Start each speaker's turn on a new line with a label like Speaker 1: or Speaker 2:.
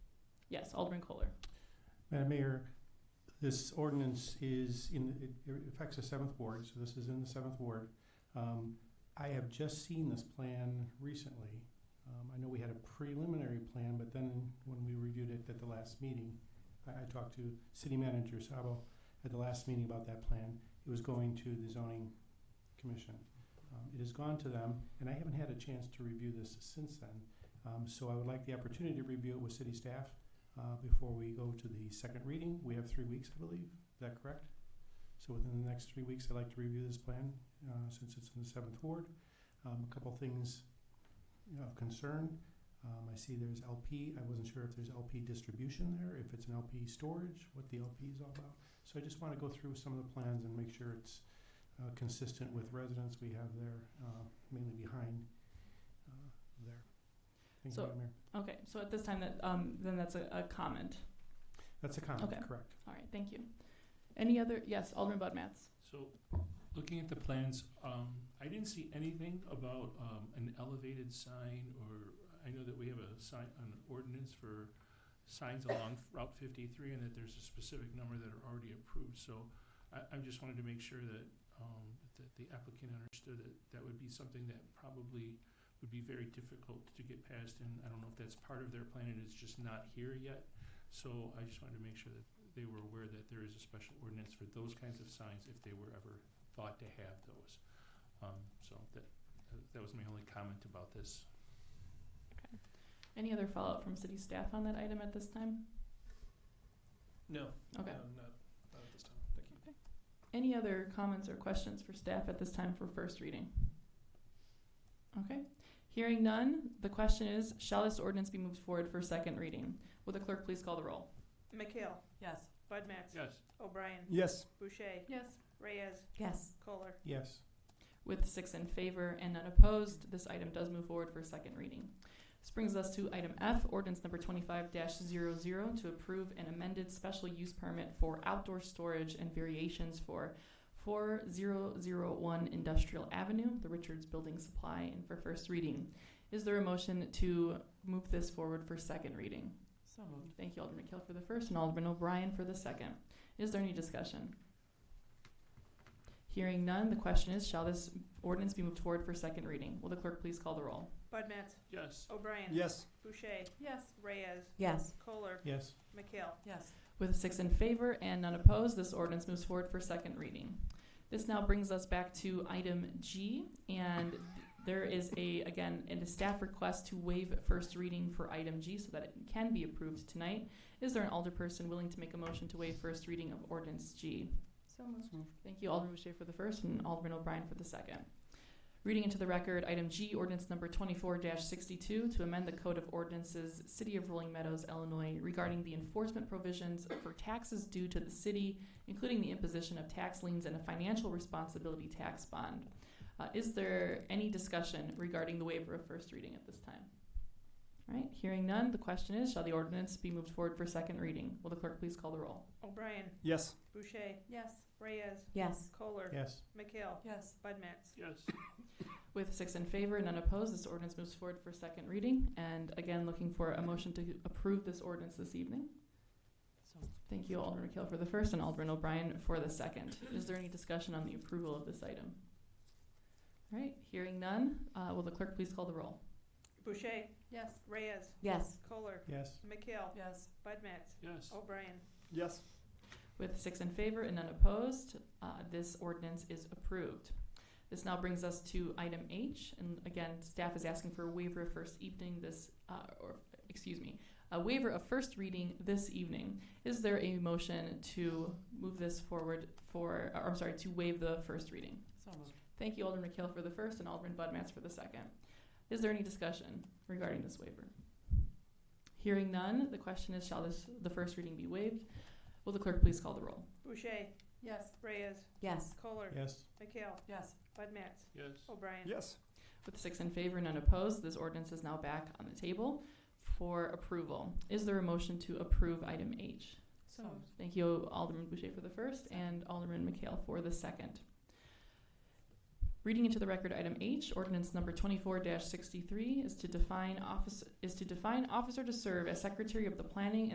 Speaker 1: Yes, Alderman Kohler.
Speaker 2: Madam Mayor, this ordinance is in, it- it affects the seventh ward, so this is in the seventh ward. Um, I have just seen this plan recently. Um, I know we had a preliminary plan, but then when we reviewed it at the last meeting, I, I talked to city manager Sabo at the last meeting about that plan. It was going to the zoning commission. Um, it has gone to them, and I haven't had a chance to review this since then. Um, so I would like the opportunity to review it with city staff, uh, before we go to the second reading. We have three weeks, I believe. Is that correct? So within the next three weeks, I'd like to review this plan, uh, since it's in the seventh ward. Um, a couple things of concern. Um, I see there's LP. I wasn't sure if there's LP distribution there, if it's an LP storage, what the LP is all about. So I just wanna go through some of the plans and make sure it's, uh, consistent with residents we have there, uh, mainly behind, uh, there. Thank you,
Speaker 1: So-
Speaker 2: Madam Mayor.
Speaker 1: Okay, so at this time, that um, then that's a, a comment.
Speaker 2: That's a comment,
Speaker 1: Okay.
Speaker 2: correct?
Speaker 1: All right, thank you. Any other? Yes, Alderman Budmats.
Speaker 3: So, looking at the plans, um, I didn't see anything about, um, an elevated sign or, I know that we have a sign, an ordinance for signs along Route fifty-three and that there's a specific number that are already approved, so I, I just wanted to make sure that, um, that the applicant understood that that would be something that probably would be very difficult to get past, and I don't know if that's part of their plan and it's just not here yet. So I just wanted to make sure that they were aware that there is a special ordinance for those kinds of signs if they were ever thought to have those. Um, so that, that was my only comment about this.
Speaker 1: Any other follow-up from city staff on that item at this time?
Speaker 3: No. um,
Speaker 1: Okay.
Speaker 3: Not, not at this time, thank you.
Speaker 1: Any other comments or questions for staff at this time for first reading? Okay, hearing none, the question is, shall this ordinance be moved forward for second reading? Will the clerk please call the roll?
Speaker 4: McHale.
Speaker 5: Yes.
Speaker 4: Budmats.
Speaker 3: Yes,
Speaker 4: O'Brien.
Speaker 2: Yes.
Speaker 4: Boucher.
Speaker 1: Yes.
Speaker 4: Reyes.
Speaker 5: Yes.
Speaker 4: Kohler.
Speaker 2: Yes.
Speaker 1: With six in favor and none opposed, this item does move forward for second reading. This brings us to item F, ordinance number twenty-five 0 to approve an amended special use permit for outdoor storage and variations for four zero zero one Industrial Avenue, the Richards Building Supply, and for first reading. Is there a motion to move this forward for second reading?
Speaker 5: So moved.
Speaker 1: Thank you, Alderman Kill for the first and Alderman O'Brien for the second. Is there any discussion? Hearing none, the question is, shall this ordinance be moved forward for second reading? Will the clerk please call the roll?
Speaker 4: Budmats.
Speaker 3: yes,
Speaker 4: O'Brien.
Speaker 2: Yes.
Speaker 4: Boucher.
Speaker 1: Yes.
Speaker 4: Reyes.
Speaker 5: Yes.
Speaker 4: Kohler.
Speaker 2: Yes.
Speaker 4: McHale.
Speaker 5: Yes.
Speaker 1: With six in favor and none opposed, this ordinance moves forward for second reading. This now brings us back to item G, and there is a, again, and a staff request to waive first reading for item G so that it can be approved tonight. Is there an alderperson willing to make a motion to waive first reading of ordinance G?
Speaker 5: So moved.
Speaker 1: Thank you, Alderman Boucher for the first and Alderman O'Brien for the second. Reading into the record, item G, ordinance number twenty-four sixty-two, to amend the Code of Ordinances, City of Rolling Meadows, Illinois, regarding the enforcement provisions for taxes due to the city, including the imposition of tax liens and a financial responsibility tax bond. Uh, is there any discussion regarding the waiver of first reading at this time? All right, hearing none, the question is, shall the ordinance be moved forward for second reading? Will the clerk please call the roll?
Speaker 4: O'Brien.
Speaker 2: Yes.
Speaker 4: Boucher.
Speaker 5: Yes.
Speaker 4: Reyes.
Speaker 5: Yes.
Speaker 4: Kohler.
Speaker 2: Yes.
Speaker 4: McHale.
Speaker 5: Yes.
Speaker 4: Budmats.
Speaker 3: yes,
Speaker 1: With six in favor and none opposed, this ordinance moves forward for second reading. And again, looking for a motion to approve this ordinance this evening.
Speaker 5: So moved.
Speaker 1: Thank you, Alderman Kill for the first and Alderman O'Brien for the second. Is there any discussion on the approval of this item? All right, hearing none, uh, will the clerk please call the roll?
Speaker 4: Boucher.
Speaker 5: Yes.
Speaker 4: Reyes.
Speaker 5: Yes.
Speaker 4: Kohler.
Speaker 2: Yes.
Speaker 4: McHale.
Speaker 5: Yes.
Speaker 4: Budmats.
Speaker 3: yes,
Speaker 4: O'Brien.
Speaker 2: Yes.
Speaker 1: With six in favor and none opposed, uh, this ordinance is approved. This now brings us to item H, and again, staff is asking for a waiver of first evening this, uh, or, excuse me, a waiver of first reading this evening. Is there a motion to move this forward for, or I'm sorry, to waive the first reading?
Speaker 5: So moved.
Speaker 1: Thank you, Alderman McHale for the first and Alderman Budmats for the second. Is there any discussion regarding this waiver? Hearing none, the question is, shall this, the first reading be waived? Will the clerk please call the roll?
Speaker 4: Boucher.
Speaker 5: Yes.
Speaker 4: Reyes.
Speaker 5: Yes.
Speaker 4: Kohler.
Speaker 2: Yes.
Speaker 4: McHale.
Speaker 5: Yes.
Speaker 4: Budmats.
Speaker 3: yes,
Speaker 4: O'Brien.
Speaker 2: Yes.
Speaker 1: With six in favor and none opposed, this ordinance is now back on the table for approval. Is there a motion to approve item H?
Speaker 5: So moved.
Speaker 1: Thank you, Alderman Boucher for the first and Alderman McHale for the second. Reading into the record, item H, ordinance number twenty-four sixty-three is to define office, is to define officer to serve as secretary of the planning